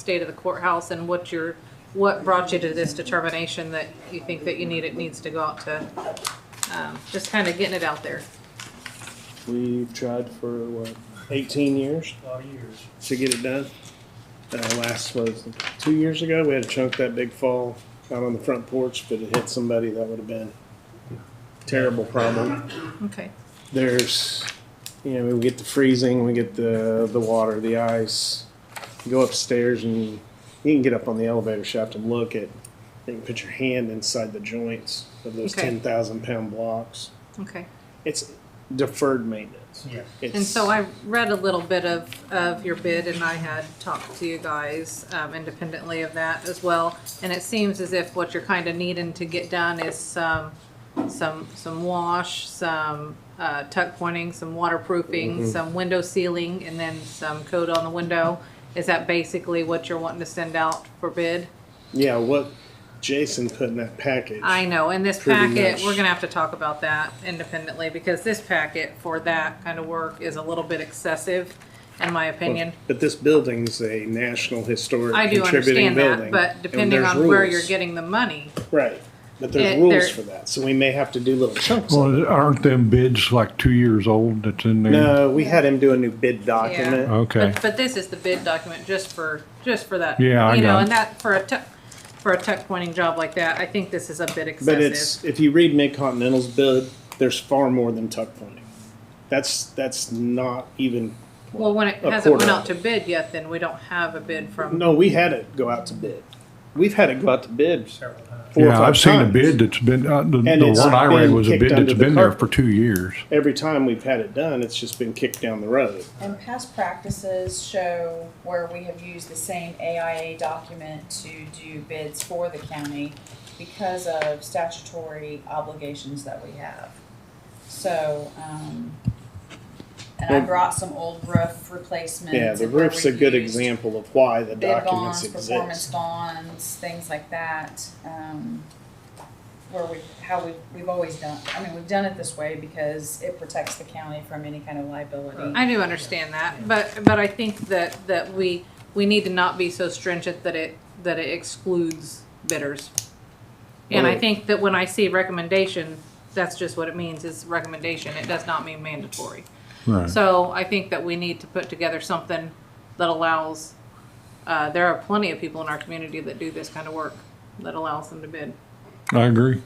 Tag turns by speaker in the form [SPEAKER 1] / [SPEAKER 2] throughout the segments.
[SPEAKER 1] state of the courthouse and what your, what brought you to this determination that you think that you need, it needs to go out to, um, just kind of getting it out there.
[SPEAKER 2] We've tried for what, 18 years
[SPEAKER 3] A lot of years.
[SPEAKER 2] to get it done. Uh, last was two years ago. We had a chunk that big fall out on the front porch, but it hit somebody. That would have been terrible problem.
[SPEAKER 1] Okay.
[SPEAKER 2] There's, you know, we get the freezing, we get the the water, the ice. You go upstairs and you can get up on the elevator shaft and look at. You can put your hand inside the joints of those
[SPEAKER 1] Okay.
[SPEAKER 2] 10,000 pound blocks.
[SPEAKER 1] Okay.
[SPEAKER 2] It's deferred maintenance.
[SPEAKER 3] Yeah.
[SPEAKER 2] It's,
[SPEAKER 1] And so I read a little bit of, of your bid and I had talked to you guys um, independently of that as well. And it seems as if what you're kind of needing to get done is some, some, some wash, some uh, tuck pointing, some
[SPEAKER 2] Mm-hmm.
[SPEAKER 1] waterproofing, some window sealing, and then some coat on the window. Is that basically what you're wanting to send out for bid?
[SPEAKER 2] Yeah, what Jason put in that package.
[SPEAKER 1] I know, in this
[SPEAKER 2] Pretty
[SPEAKER 1] packet,
[SPEAKER 2] much.
[SPEAKER 1] we're gonna have to talk about that independently because this packet for that kind of work is a little bit excessive, in my opinion.
[SPEAKER 2] But this building's a national historic
[SPEAKER 1] I do
[SPEAKER 2] contributing
[SPEAKER 1] understand that,
[SPEAKER 2] building.
[SPEAKER 1] but
[SPEAKER 2] and
[SPEAKER 1] depending
[SPEAKER 2] there's
[SPEAKER 1] on where
[SPEAKER 2] rules.
[SPEAKER 1] you're getting the money,
[SPEAKER 2] Right, but there's
[SPEAKER 1] It-
[SPEAKER 2] rules
[SPEAKER 1] there-
[SPEAKER 2] for that, so we may have to do little chunks. of
[SPEAKER 4] Well, aren't them bids like two years old that's in
[SPEAKER 2] it.
[SPEAKER 4] there?
[SPEAKER 2] No, we had him do a new bid document.
[SPEAKER 4] Okay.
[SPEAKER 1] But, but this is the bid document just for, just for that.
[SPEAKER 4] Yeah, I
[SPEAKER 1] You know,
[SPEAKER 4] got it.
[SPEAKER 1] and that, for a tuck, for a tuck pointing job like that, I think this is a bit excessive.
[SPEAKER 2] But it's, if you read Mid Continental's bid, there's far more than tuck pointing. That's, that's not even,
[SPEAKER 1] Well, when it
[SPEAKER 2] a
[SPEAKER 1] hasn't went
[SPEAKER 2] quarter.
[SPEAKER 1] out to bid yet, then we don't have a bid from,
[SPEAKER 2] no, we had it go out to bid. We've had it go out to bid four
[SPEAKER 3] Several times.
[SPEAKER 2] or
[SPEAKER 4] Yeah,
[SPEAKER 2] five
[SPEAKER 4] I've
[SPEAKER 2] times.
[SPEAKER 4] seen a bid that's been, uh, the,
[SPEAKER 2] And
[SPEAKER 4] the
[SPEAKER 2] it's
[SPEAKER 4] one I read
[SPEAKER 2] been
[SPEAKER 4] was a
[SPEAKER 2] kicked
[SPEAKER 4] bid
[SPEAKER 2] under
[SPEAKER 4] that's
[SPEAKER 2] the
[SPEAKER 4] been there
[SPEAKER 2] carpet.
[SPEAKER 4] for two years.
[SPEAKER 2] Every time we've had it done, it's just been kicked down the road.
[SPEAKER 5] And past practices show where we have used the same AIA document to do bids for the county because of statutory obligations that we have. So, um, and I
[SPEAKER 2] Well-
[SPEAKER 5] brought some old roof replacements.
[SPEAKER 2] Yeah, the
[SPEAKER 5] and where
[SPEAKER 2] roof's
[SPEAKER 5] we
[SPEAKER 2] a good
[SPEAKER 5] used
[SPEAKER 2] example of why the
[SPEAKER 5] Bid bonds,
[SPEAKER 2] documents
[SPEAKER 5] performance
[SPEAKER 2] exist.
[SPEAKER 5] bonds, things like that, um, where we, how we, we've always done, I mean, we've done it this way because it protects the county from any kind of liability.
[SPEAKER 1] I do understand that, but, but I think that, that we, we need to not be so stringent that it, that it excludes bidders. And I
[SPEAKER 2] Well-
[SPEAKER 1] think that when I see recommendation, that's just what it means, is recommendation, it does not mean mandatory.
[SPEAKER 4] Right.
[SPEAKER 1] So I think that we need to put together something that allows, uh, there are plenty of people in our community that do this kind of work, that allows them to bid.
[SPEAKER 4] I agree.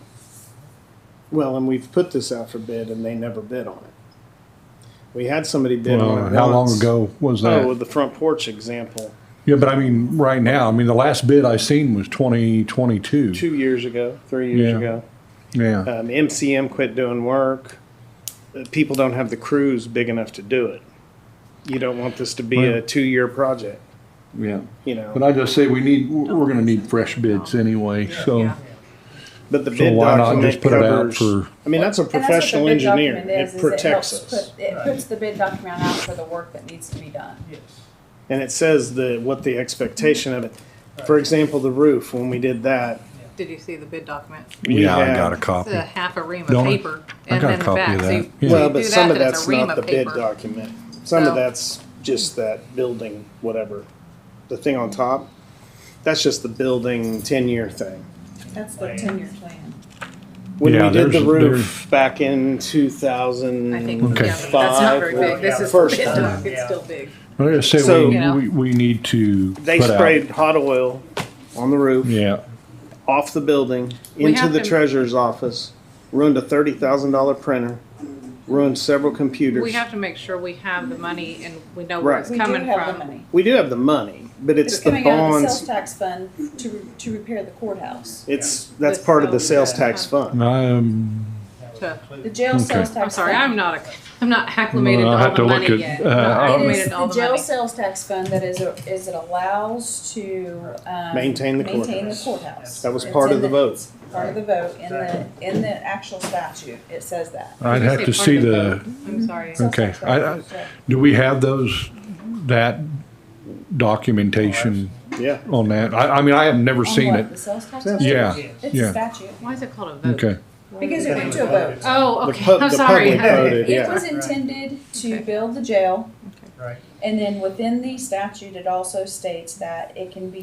[SPEAKER 2] Well, and we've put this out for bid and they never bid on it. We had somebody bid on
[SPEAKER 4] Well,
[SPEAKER 2] it
[SPEAKER 4] how long
[SPEAKER 2] once.
[SPEAKER 4] ago was
[SPEAKER 2] Oh,
[SPEAKER 4] that?
[SPEAKER 2] with the front porch example,
[SPEAKER 4] Yeah, but I mean, right now, I mean, the last bid I seen was twenty twenty-two.
[SPEAKER 2] two years ago, three years
[SPEAKER 4] Yeah.
[SPEAKER 2] ago.
[SPEAKER 4] Yeah,
[SPEAKER 2] Um, MCM quit doing work. Uh, People don't have the crews big enough to do it. You don't want this to be a
[SPEAKER 4] Well-
[SPEAKER 2] two-year project,
[SPEAKER 4] yeah.
[SPEAKER 2] you
[SPEAKER 4] But
[SPEAKER 2] know.
[SPEAKER 4] I just say we need, we're gonna need fresh bids anyway, so,
[SPEAKER 1] Yeah.
[SPEAKER 2] But the
[SPEAKER 4] so
[SPEAKER 2] bid
[SPEAKER 4] why not
[SPEAKER 2] document
[SPEAKER 4] just put it out
[SPEAKER 2] covers,
[SPEAKER 4] for,
[SPEAKER 2] I mean, that's a
[SPEAKER 5] And that's what
[SPEAKER 2] professional
[SPEAKER 5] the bid
[SPEAKER 2] engineer.
[SPEAKER 5] document is,
[SPEAKER 2] It
[SPEAKER 5] is
[SPEAKER 2] protects
[SPEAKER 5] helps
[SPEAKER 2] us.
[SPEAKER 5] put- It puts the bid document out for the work that needs to be done.
[SPEAKER 3] Yes.
[SPEAKER 2] And it says the, what the expectation of it. For example, the roof, when we did that,
[SPEAKER 1] Did you see the bid document?
[SPEAKER 2] we
[SPEAKER 4] yeah, I
[SPEAKER 2] had-
[SPEAKER 4] got a
[SPEAKER 1] It's
[SPEAKER 4] copy.
[SPEAKER 1] a half a ream of
[SPEAKER 4] Don't I?
[SPEAKER 1] paper
[SPEAKER 4] I
[SPEAKER 1] and
[SPEAKER 4] got a
[SPEAKER 1] then the
[SPEAKER 4] copy
[SPEAKER 1] back.
[SPEAKER 4] of
[SPEAKER 1] So
[SPEAKER 4] that.
[SPEAKER 1] you-
[SPEAKER 4] Yeah.
[SPEAKER 1] so you
[SPEAKER 2] Well, but
[SPEAKER 1] do
[SPEAKER 2] some
[SPEAKER 1] that,
[SPEAKER 2] of
[SPEAKER 1] then it's
[SPEAKER 2] that's
[SPEAKER 1] a ream
[SPEAKER 2] not
[SPEAKER 1] of
[SPEAKER 2] the bid
[SPEAKER 1] paper.
[SPEAKER 2] document. Some of
[SPEAKER 1] So-
[SPEAKER 2] that's just that building, whatever. The thing on top, that's just the building ten-year thing.
[SPEAKER 5] That's the ten-year plan.
[SPEAKER 2] When
[SPEAKER 4] Yeah,
[SPEAKER 2] we did the
[SPEAKER 4] there's-
[SPEAKER 2] roof back in two thousand
[SPEAKER 1] I think, yeah, but
[SPEAKER 4] Okay.
[SPEAKER 1] that's not very big. This is the
[SPEAKER 2] First
[SPEAKER 1] bid
[SPEAKER 2] time,
[SPEAKER 1] doc, it's
[SPEAKER 3] Yeah.
[SPEAKER 1] still big.
[SPEAKER 4] I just say
[SPEAKER 2] So-
[SPEAKER 4] we, we, we need to.
[SPEAKER 2] they
[SPEAKER 4] put out-
[SPEAKER 2] sprayed hot oil on the roof,
[SPEAKER 4] uh, Yeah,
[SPEAKER 2] off the building,
[SPEAKER 1] We
[SPEAKER 2] into
[SPEAKER 1] have
[SPEAKER 2] the
[SPEAKER 1] to-
[SPEAKER 2] treasurer's office, ruined a thirty thousand dollar printer, ruined several
[SPEAKER 1] We
[SPEAKER 2] computers.
[SPEAKER 1] have to make sure we have the money and we know
[SPEAKER 2] Right.
[SPEAKER 1] where it's
[SPEAKER 5] We do
[SPEAKER 1] coming
[SPEAKER 5] have the
[SPEAKER 1] from.
[SPEAKER 5] money.
[SPEAKER 2] We do have the money, but it's
[SPEAKER 5] It's
[SPEAKER 2] the
[SPEAKER 5] coming out of the sales
[SPEAKER 2] bonds.
[SPEAKER 5] tax fund to, re- to repair the courthouse.
[SPEAKER 2] It's, that's
[SPEAKER 1] The
[SPEAKER 2] part of the
[SPEAKER 1] sales
[SPEAKER 2] sales tax
[SPEAKER 1] tax.
[SPEAKER 2] fund.
[SPEAKER 4] um,
[SPEAKER 1] To-
[SPEAKER 5] The jail sales tax.
[SPEAKER 1] I'm sorry,
[SPEAKER 5] fund-
[SPEAKER 1] I'm not, a- I'm not acclimated to
[SPEAKER 4] I'll
[SPEAKER 1] all
[SPEAKER 4] have
[SPEAKER 1] the
[SPEAKER 4] to look
[SPEAKER 1] money
[SPEAKER 4] at,
[SPEAKER 1] yet.
[SPEAKER 4] uh,
[SPEAKER 1] Not
[SPEAKER 4] I'll-
[SPEAKER 1] acclimated to all
[SPEAKER 5] The
[SPEAKER 1] the
[SPEAKER 5] jail
[SPEAKER 1] money.
[SPEAKER 5] sales tax fund that is, a- is it allows to, um.
[SPEAKER 2] Maintain the
[SPEAKER 5] Maintain the
[SPEAKER 2] courthouse.
[SPEAKER 5] courthouse.
[SPEAKER 2] That was
[SPEAKER 5] It's
[SPEAKER 2] part
[SPEAKER 5] in
[SPEAKER 2] of the vote.
[SPEAKER 5] it's Part of the vote, in the, in the actual statute, it says that.
[SPEAKER 4] I'd
[SPEAKER 1] You
[SPEAKER 4] have
[SPEAKER 1] say
[SPEAKER 4] to
[SPEAKER 1] part
[SPEAKER 4] see
[SPEAKER 1] of
[SPEAKER 4] the,
[SPEAKER 1] vote. I'm sorry.
[SPEAKER 5] Sales
[SPEAKER 4] Okay,
[SPEAKER 5] tax
[SPEAKER 4] I-
[SPEAKER 5] fund, so-
[SPEAKER 4] do we have those, that documentation
[SPEAKER 2] Yeah.
[SPEAKER 4] on that? I, I mean, I have never
[SPEAKER 5] On
[SPEAKER 4] seen
[SPEAKER 5] what,
[SPEAKER 4] it.
[SPEAKER 5] The sales tax?
[SPEAKER 2] Yeah.
[SPEAKER 5] fund?
[SPEAKER 4] Yeah,
[SPEAKER 5] It's
[SPEAKER 4] Yeah.
[SPEAKER 5] a statute.
[SPEAKER 1] Why is it called a vote?
[SPEAKER 4] okay.
[SPEAKER 5] Because it went to a vote.
[SPEAKER 1] Oh,
[SPEAKER 2] The
[SPEAKER 1] okay,
[SPEAKER 2] pub-
[SPEAKER 1] I'm
[SPEAKER 2] the
[SPEAKER 1] sorry.
[SPEAKER 2] public voted.
[SPEAKER 5] It
[SPEAKER 2] Yeah.
[SPEAKER 5] was intended to build the jail
[SPEAKER 3] Right.
[SPEAKER 5] And then within the statute, it also states that it can be